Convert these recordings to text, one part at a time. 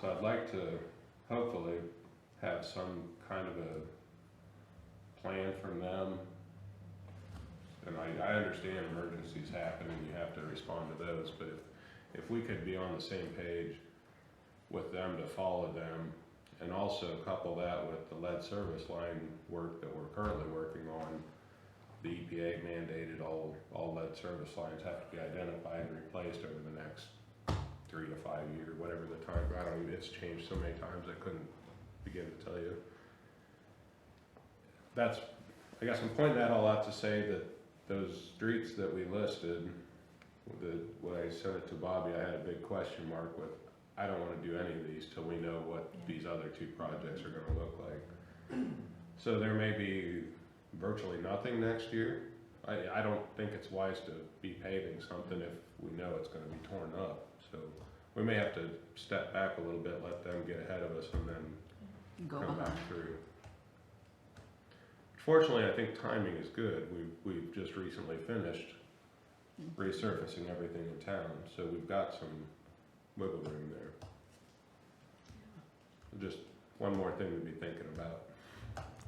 So I'd like to hopefully have some kind of a plan from them. And I, I understand emergencies happen and you have to respond to those, but if, if we could be on the same page with them to follow them and also couple that with the lead service line work that we're currently working on, the EPA mandated all, all lead service lines have to be identified and replaced over the next three to five year, whatever the time, I don't, it's changed so many times, I couldn't begin to tell you. That's, I guess I'm pointing that all out to say that those streets that we listed, the, when I sent it to Bobby, I had a big question mark with, I don't wanna do any of these till we know what Yeah. these other two projects are gonna look like. So there may be virtually nothing next year. I, I don't think it's wise to be paving something if we know it's gonna be torn up, so we may have to step back a little bit, let them get ahead of us and then Go come behind. back through. Fortunately, I think timing is good. We, we've just recently finished Mhm. resurfacing everything in town, so we've got some wiggle room there. Just one more thing to be thinking about,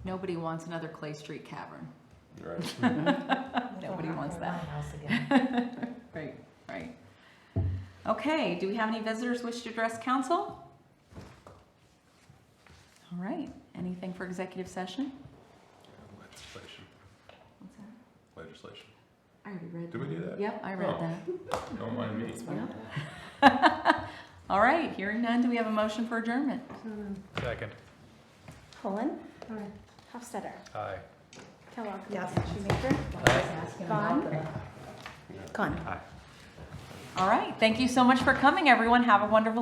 Nobody wants another Clay Street cavern. right? Mm-hmm. Nobody wants that. My house again. Right, right. Okay, do we have any visitors wish to address council? All right, anything for executive session? Legislation, What's that? legislation. I already read Did we do that? Yep, I read Oh. that. Don't mind me. Yeah. All right, hearing none, do we have a motion for adjournment? Second. Cullen. Hofstadter. Aye. Kellogg. Yes. Shoemaker. Vaughn. Gone. All right, thank you so much for coming, everyone. Have a wonderful